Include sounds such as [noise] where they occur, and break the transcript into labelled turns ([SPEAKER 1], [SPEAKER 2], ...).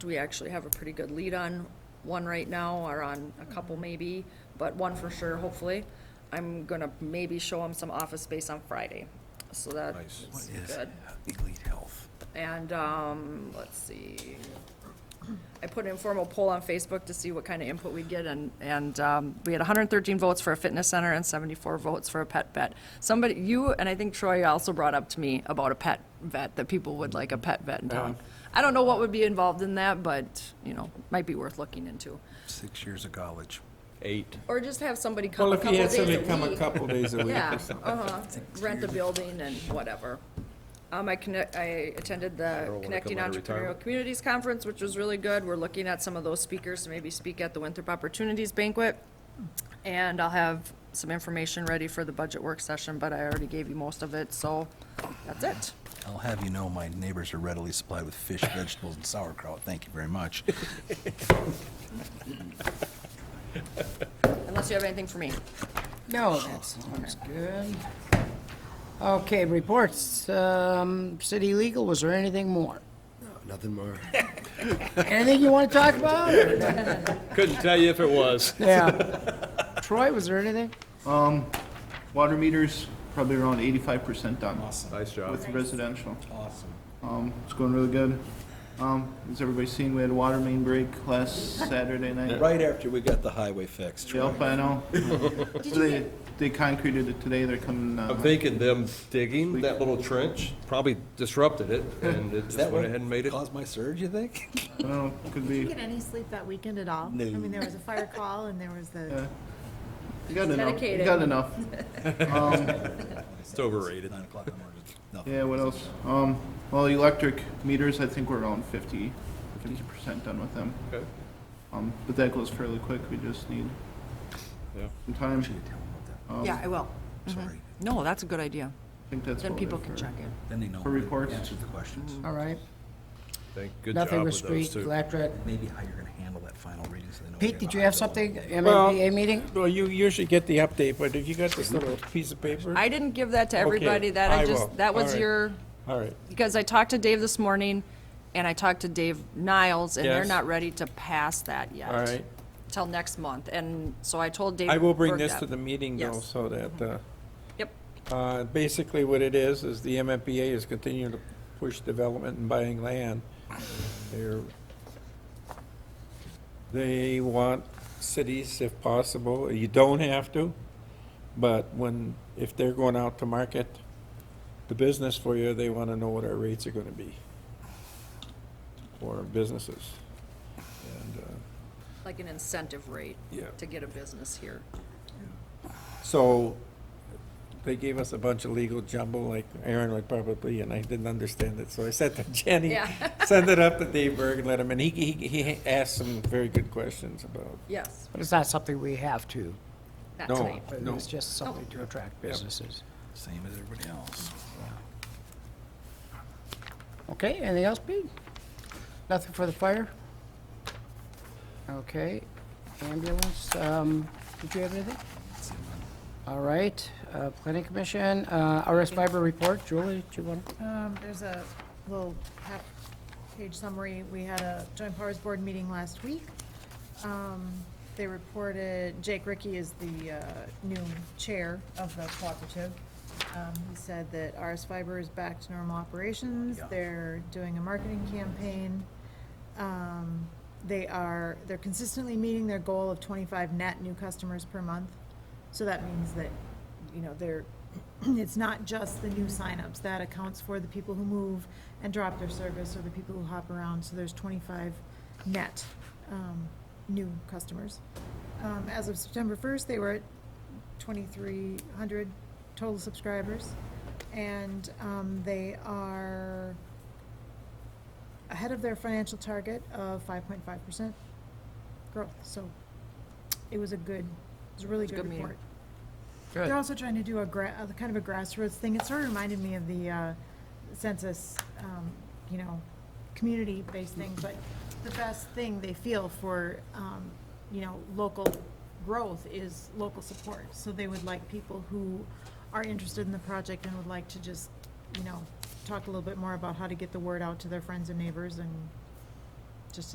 [SPEAKER 1] we actually have a pretty good lead on one right now, or on a couple maybe, but one for sure, hopefully. I'm gonna maybe show him some office space on Friday, so that's
[SPEAKER 2] Nice.
[SPEAKER 1] good.
[SPEAKER 3] Elite Health?
[SPEAKER 1] And, um, let's see. I put an informal poll on Facebook to see what kind of input we get, and, and, um, we had hundred and thirteen votes for a fitness center and seventy-four votes for a pet vet. Somebody, you, and I think Troy also brought up to me about a pet vet, that people would like a pet vet in town. I don't know what would be involved in that, but, you know, might be worth looking into.
[SPEAKER 3] Six years of college.
[SPEAKER 2] Eight.
[SPEAKER 1] Or just have somebody come
[SPEAKER 4] Well,
[SPEAKER 1] a
[SPEAKER 4] if
[SPEAKER 1] couple
[SPEAKER 4] you had
[SPEAKER 1] days a
[SPEAKER 4] somebody come a
[SPEAKER 1] week.
[SPEAKER 2] [laughs]
[SPEAKER 4] couple days a week
[SPEAKER 1] Yeah,
[SPEAKER 4] or something.
[SPEAKER 1] uh-huh, rent the building and whatever. Um, I connect, I attended the
[SPEAKER 2] wanna
[SPEAKER 1] Connecting
[SPEAKER 2] come out of
[SPEAKER 1] Entrepreneurial
[SPEAKER 2] retirement?
[SPEAKER 1] Communities Conference, which was really good. We're looking at some of those speakers to maybe speak at the Winthrop Opportunities Banquet. And I'll have some information ready for the budget work session, but I already gave you most of it, so that's it.
[SPEAKER 3] I'll have you know, my neighbors are readily supplied with [laughs] fish, vegetables, and sauerkraut. Thank you very much.
[SPEAKER 1] Unless you have anything for me.
[SPEAKER 5] No, that sounds good. Okay, reports, um, city legal, was there anything more?
[SPEAKER 6] Nothing more.
[SPEAKER 5] [laughs] Anything you want to talk about?
[SPEAKER 2] [laughs] Couldn't tell you if it was.
[SPEAKER 5] Yeah. Troy, was there anything?
[SPEAKER 7] Water meters, probably around eighty-five percent done
[SPEAKER 2] Nice job.
[SPEAKER 7] with residential. Awesome. Um, it's going really good. Um, as everybody's seen, we had a water main break last Saturday
[SPEAKER 3] [laughs]
[SPEAKER 7] night.
[SPEAKER 3] Right after we got the highway fixed.
[SPEAKER 7] The Alpino. They, they concreted it today, they're coming,
[SPEAKER 2] I'm
[SPEAKER 7] uh,
[SPEAKER 2] thinking them digging that little trench probably disrupted it, and it just went ahead and made it.
[SPEAKER 3] Caused my surge, you [laughs] think?
[SPEAKER 7] I don't know, could
[SPEAKER 8] Did you
[SPEAKER 7] be,
[SPEAKER 8] get any sleep that weekend at all? I mean, there was a fire call and there was the,
[SPEAKER 7] Yeah. you got enough, you
[SPEAKER 1] Dedicated.
[SPEAKER 7] got enough.
[SPEAKER 2] It's overrated.
[SPEAKER 3] Nine o'clock in the morning, just nothing.
[SPEAKER 7] Yeah, what else? Um, well, electric meters, I think we're around 50 percent done with them.
[SPEAKER 2] Okay.
[SPEAKER 7] Um, but that goes fairly quick, we just need
[SPEAKER 2] Yeah.
[SPEAKER 7] some time.
[SPEAKER 3] Oh,
[SPEAKER 8] yeah, I will.
[SPEAKER 3] Sorry.
[SPEAKER 1] No, that's a good idea.
[SPEAKER 7] I think that's
[SPEAKER 1] Then
[SPEAKER 7] all we
[SPEAKER 1] people
[SPEAKER 7] have
[SPEAKER 1] can
[SPEAKER 7] for-
[SPEAKER 1] check in.
[SPEAKER 3] Then they know.
[SPEAKER 7] For reports?
[SPEAKER 3] Answer the questions.
[SPEAKER 5] All right,
[SPEAKER 2] Thank, good job
[SPEAKER 5] nothing with
[SPEAKER 2] with those
[SPEAKER 5] street,
[SPEAKER 2] two.
[SPEAKER 5] electric.
[SPEAKER 3] Maybe how you're gonna handle that final reading so they know. what
[SPEAKER 5] Pete,
[SPEAKER 3] you're
[SPEAKER 5] did
[SPEAKER 3] not
[SPEAKER 5] you have
[SPEAKER 3] doing.
[SPEAKER 5] something,
[SPEAKER 4] Well-
[SPEAKER 5] MABA meeting?
[SPEAKER 4] Well, you usually get the update, but if you got this little piece of paper,
[SPEAKER 1] I didn't give that to everybody, that I
[SPEAKER 4] I
[SPEAKER 1] just,
[SPEAKER 4] will.
[SPEAKER 1] that was
[SPEAKER 4] Alright.
[SPEAKER 1] your,
[SPEAKER 4] all right.
[SPEAKER 1] because I talked to Dave this morning, and I talked to Dave Niles, and they're
[SPEAKER 4] Yes.
[SPEAKER 1] not ready to pass that yet.
[SPEAKER 4] All right.
[SPEAKER 1] Till next month, and so I told Dave.
[SPEAKER 4] I will bring
[SPEAKER 1] Burke
[SPEAKER 4] this
[SPEAKER 1] that.
[SPEAKER 4] to the meeting though,
[SPEAKER 1] Yes.
[SPEAKER 4] so that, uh,
[SPEAKER 1] Yep,
[SPEAKER 4] Uh, Basically, what it is, is the MMPA is continuing to push development and buying land. They're, they want cities, if possible, you don't have to, but when, if they're going out to market the business for you, they want to know what our rates are going to be for businesses. And, uh,
[SPEAKER 1] like an incentive rate.
[SPEAKER 4] Yeah.
[SPEAKER 1] To get a business here.
[SPEAKER 4] So they gave us a bunch of legal jumble, like Aaron would probably, and I didn't understand it. So I said to [laughs] Jenny,
[SPEAKER 1] Yeah.
[SPEAKER 4] send it up to Dave Berg and let him, and he, he, he asked some very good questions about.
[SPEAKER 1] Yes,
[SPEAKER 5] But it's not something we have to,
[SPEAKER 1] that
[SPEAKER 4] No.
[SPEAKER 1] type.
[SPEAKER 5] but
[SPEAKER 4] No.
[SPEAKER 5] it's just something to attract businesses.
[SPEAKER 3] Same as everybody else.
[SPEAKER 5] Okay, anything else, Pete? Nothing for the fire? Okay, ambulance, um, did you have anything? All right, uh, planning commission, uh, RS fiber report, Julie, do you want?
[SPEAKER 8] Um, there's a little half page summary. We had a joint powers board meeting last week. Um, they reported Jake Ricky is the, uh, new chair of the cooperative. Um, he said that RS Fiber is back to normal operations. They're doing a marketing campaign. Um, they are, they're consistently meeting their goal of twenty-five net new customers per month. So that means that, you know, they're, [clears throat] it's not just the new signups. That accounts for the people who move and drop their service or the people who hop around. So there's twenty-five net, um, new customers. Um, as of September first, they were at twenty-three hundred total subscribers. And, um, they are ahead of their financial target of five point five percent growth, so it was a good, it was a really
[SPEAKER 1] a
[SPEAKER 8] good
[SPEAKER 1] good meeting.
[SPEAKER 8] report.
[SPEAKER 5] Good.
[SPEAKER 8] They're also trying to do a gra, a kind of a grassroots thing, it sort of reminded me of the, uh, census, um, you know, community-based thing, but the best thing they feel for, um, you know, local growth is local support, so they would like people who are interested in the project and would like to just, you know, talk a little bit more about how to get the word out to their friends and neighbors and